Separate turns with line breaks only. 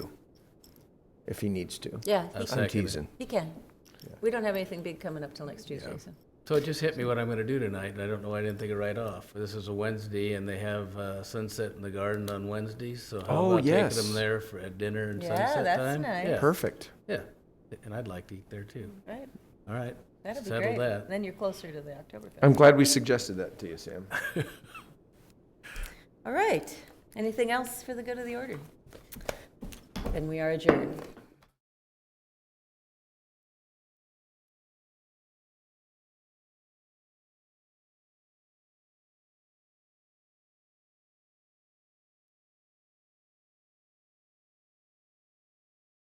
if he needs to.
Yeah, he
I'll
can.
I'm
second it.
teasing.
He can. We don't have anything big coming up till next Tuesday, so.
So it just hit me what I'm going to do tonight, and I don't know why I didn't think of right off. This is a Wednesday, and they have uh, sunset in the garden on Wednesdays. So how
Oh,
about
yes.
taking them there for a dinner and
Yeah,
sunset
that's
time?
nice.
Yeah,
Perfect.
yeah. And I'd like to eat there too.
Right,
All right,
that'd be
settle
great.
that.
Then you're closer to the Oktoberfest.
I'm glad we suggested that to you, Sam.
All right, anything else for the good of the order? Then we are adjourned.